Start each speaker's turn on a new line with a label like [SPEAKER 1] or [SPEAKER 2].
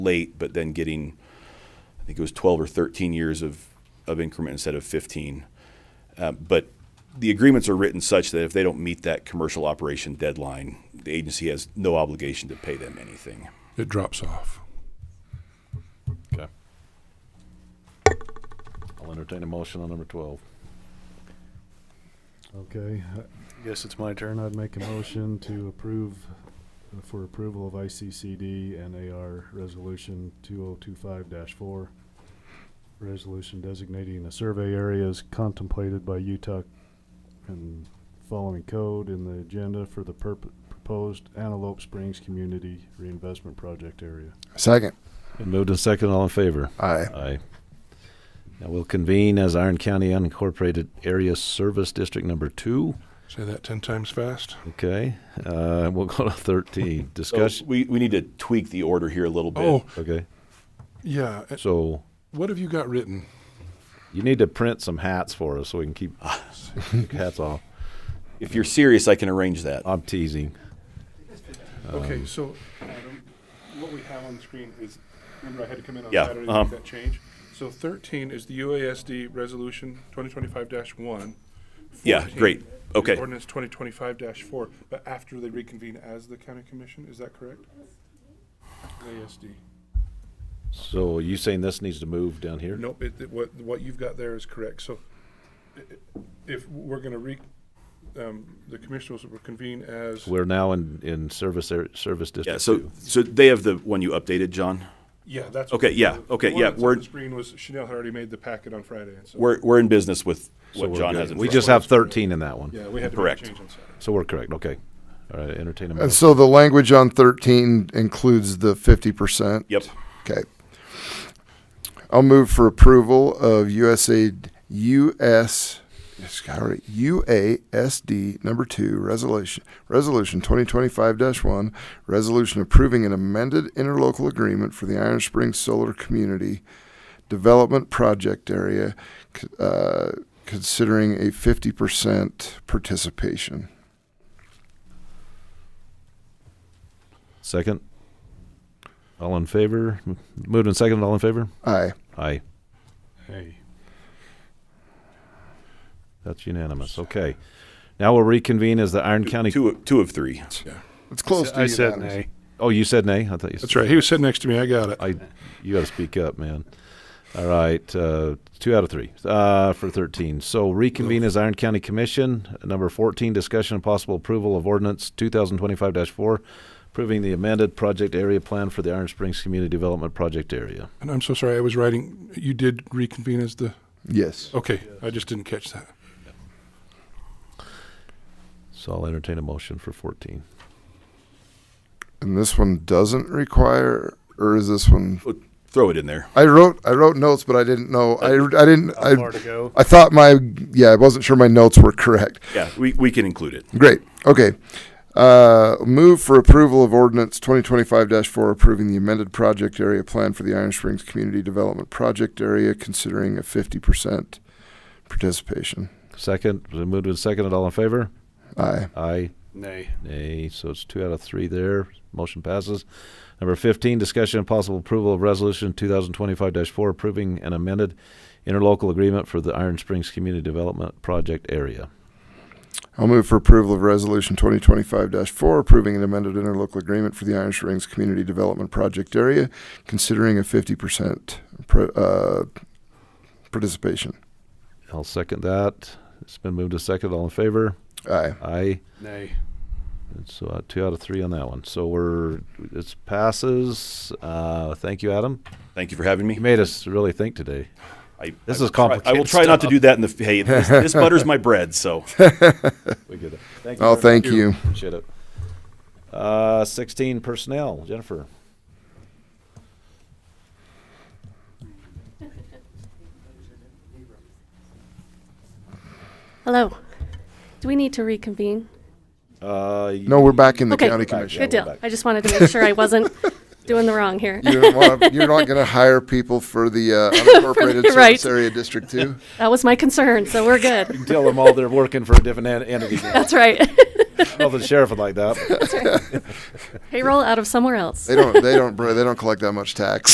[SPEAKER 1] late, but then getting, I think it was 12 or 13 years of, of increment instead of 15. Uh, but the agreements are written such that if they don't meet that commercial operation deadline, the agency has no obligation to pay them anything.
[SPEAKER 2] It drops off.
[SPEAKER 3] Okay. I'll entertain a motion on number twelve.
[SPEAKER 4] Okay, uh, I guess it's my turn. I'd make a motion to approve, uh, for approval of ICCD and AR Resolution two oh two five four. Resolution designating the survey areas contemplated by UTUC and following code in the agenda for the purpo- proposed Antelope Springs Community Reinvestment Project area.
[SPEAKER 5] Second.
[SPEAKER 3] Moved and second, all in favor?
[SPEAKER 5] Aye.
[SPEAKER 3] Aye. Now we'll convene as Iron County Unincorporated Area Service District Number Two.
[SPEAKER 2] Say that 10 times fast.
[SPEAKER 3] Okay, uh, we'll go to thirteen,
[SPEAKER 1] So
[SPEAKER 3] discussion,
[SPEAKER 1] we, we need to tweak the order here a little bit.
[SPEAKER 2] Oh,
[SPEAKER 3] okay?
[SPEAKER 2] yeah. Uh,
[SPEAKER 3] So
[SPEAKER 2] What have you got written?
[SPEAKER 3] you need to print some hats for us so we can keep take hats off.
[SPEAKER 1] If you're serious, I can arrange that.
[SPEAKER 3] I'm teasing.
[SPEAKER 1] Um,
[SPEAKER 6] Okay, so Adam, what we have on the screen is, remember I had to come in on
[SPEAKER 1] Yeah,
[SPEAKER 6] Saturday to
[SPEAKER 1] uh-huh.
[SPEAKER 6] make that change? So thirteen is the UASD Resolution twenty twenty-five one.
[SPEAKER 1] Yeah, great. Okay.
[SPEAKER 6] Ordinance twenty twenty-five four, but after they reconvene as the county commission, is that correct? UASD.
[SPEAKER 3] So you saying this needs to move down here?
[SPEAKER 6] Nope, it, it- what, what you've got there is correct, so i- i- if we're gonna re, um, the commissioners will convene as,
[SPEAKER 3] We're now in, in service, area service
[SPEAKER 1] Yeah,
[SPEAKER 3] district
[SPEAKER 1] so,
[SPEAKER 3] two.
[SPEAKER 1] so they have the one you updated, John?
[SPEAKER 6] yeah, that's.
[SPEAKER 1] Okay, yeah,
[SPEAKER 6] the-
[SPEAKER 1] okay,
[SPEAKER 6] the
[SPEAKER 1] yeah,
[SPEAKER 6] one that's on
[SPEAKER 1] we're-
[SPEAKER 6] the Screen was, Chanel had already made the packet on Friday, and so.
[SPEAKER 1] We're, we're in business with
[SPEAKER 3] So
[SPEAKER 1] what
[SPEAKER 3] we're
[SPEAKER 1] John
[SPEAKER 3] good.
[SPEAKER 1] has in
[SPEAKER 3] We
[SPEAKER 1] front
[SPEAKER 3] just
[SPEAKER 1] of us.
[SPEAKER 3] have thirteen in that one.
[SPEAKER 6] Yeah, we had to make
[SPEAKER 1] Correct.
[SPEAKER 6] a change on Saturday.
[SPEAKER 3] So we're correct, okay. All right, entertain a
[SPEAKER 5] And
[SPEAKER 3] motion.
[SPEAKER 5] so the language on 13 includes the 50%?
[SPEAKER 1] Yep.
[SPEAKER 5] Okay. I'll move for approval of USAID, US, sorry, UASD number two, resolution, resolution 2025-1, resolution approving an amended interlocal agreement for the Iron Springs Solar Community Development Project Area, c- uh, considering a 50% participation.
[SPEAKER 3] Second? All in favor? M- Moved and second, all in favor?
[SPEAKER 5] Aye.
[SPEAKER 3] Aye.
[SPEAKER 4] Hey.
[SPEAKER 3] That's unanimous, okay. Now we'll reconvene as the Iron County,
[SPEAKER 1] Two, two of three.
[SPEAKER 5] It's close to
[SPEAKER 2] I said
[SPEAKER 5] unanimous.
[SPEAKER 2] nay.
[SPEAKER 3] oh, you said nay? I thought you
[SPEAKER 2] That's
[SPEAKER 3] said-
[SPEAKER 2] right. He was sitting next to me. I got it.
[SPEAKER 3] I, you gotta speak up, man. All right, uh, two out of three, uh, for thirteen. So reconvene as Iron County Commission. Number fourteen, discussion and possible approval of ordinance two thousand twenty-five four, approving the amended project area plan for the Iron Springs Community Development Project Area.
[SPEAKER 2] And I'm so sorry. I was writing. You did reconvene as the.
[SPEAKER 5] Yes.
[SPEAKER 2] Okay. I just didn't catch that.
[SPEAKER 3] So I'll entertain a motion for fourteen.
[SPEAKER 5] And this one doesn't require, or is this one?
[SPEAKER 1] Throw it in there.
[SPEAKER 5] I wrote I wrote notes, but I didn't know. I, I didn't.
[SPEAKER 7] how far
[SPEAKER 5] I,
[SPEAKER 7] to go.
[SPEAKER 5] I thought my yeah, I wasn't sure my notes were correct.
[SPEAKER 1] Yeah, we, we can include it.
[SPEAKER 5] Great. Okay. Uh, move for approval of ordinance 2025-4 approving the amended project area plan for the Iron Springs Community Development Project Area, considering a 50% participation.
[SPEAKER 3] Second, was it moved and seconded, all in favor?
[SPEAKER 5] Aye.
[SPEAKER 3] Aye.
[SPEAKER 4] Nay.
[SPEAKER 3] Nay, so it's two out of three there. Motion passes. Number fifteen, discussion and possible approval of resolution two thousand twenty-five four approving an amended interlocal agreement for the Iron Springs Community Development Project Area.
[SPEAKER 5] I'll move for approval of Resolution 2025-4, approving an amended interlocal agreement for the Iron Springs Community Development Project Area, considering a 50% pr- uh, participation.
[SPEAKER 3] I'll second that. It's been moved to second. All in favor?
[SPEAKER 5] Aye.
[SPEAKER 3] Aye.
[SPEAKER 4] Nay.
[SPEAKER 3] And So uh, two out of three on that one. So we're, it passes. Uh, thank you, Adam.
[SPEAKER 1] Thank you for having me.
[SPEAKER 3] You made us really think today.
[SPEAKER 1] I,
[SPEAKER 3] This
[SPEAKER 1] I will
[SPEAKER 3] is
[SPEAKER 1] try- I will
[SPEAKER 3] complicated
[SPEAKER 1] try not to
[SPEAKER 3] stuff.
[SPEAKER 1] do that in the, f- hey, this, this butters my bread, so.
[SPEAKER 3] We get it. Thank very
[SPEAKER 5] Oh,
[SPEAKER 3] much.
[SPEAKER 5] thank you.
[SPEAKER 3] Appreciate it. Uh, sixteen personnel, Jennifer.
[SPEAKER 8] Hello. Do we need to reconvene?
[SPEAKER 3] Uh,
[SPEAKER 5] No, we're back in the
[SPEAKER 8] Okay.
[SPEAKER 5] county
[SPEAKER 3] Back,
[SPEAKER 5] commission.
[SPEAKER 3] yeah.
[SPEAKER 8] Good
[SPEAKER 3] we're
[SPEAKER 8] deal.
[SPEAKER 3] back.
[SPEAKER 8] I just wanted to make sure I wasn't doing the wrong here.
[SPEAKER 5] You don't wanna, you're not going to hire people for the uh, unincorporated service
[SPEAKER 8] right.
[SPEAKER 5] area district too.
[SPEAKER 8] That was my concern, so we're good.
[SPEAKER 3] Tell them all they're working for a different en- entity. now.
[SPEAKER 8] That's right.
[SPEAKER 3] Well, the sheriff would like that.
[SPEAKER 8] Payroll out of somewhere else.
[SPEAKER 5] They don't. They don't. br- They don't collect that much tax.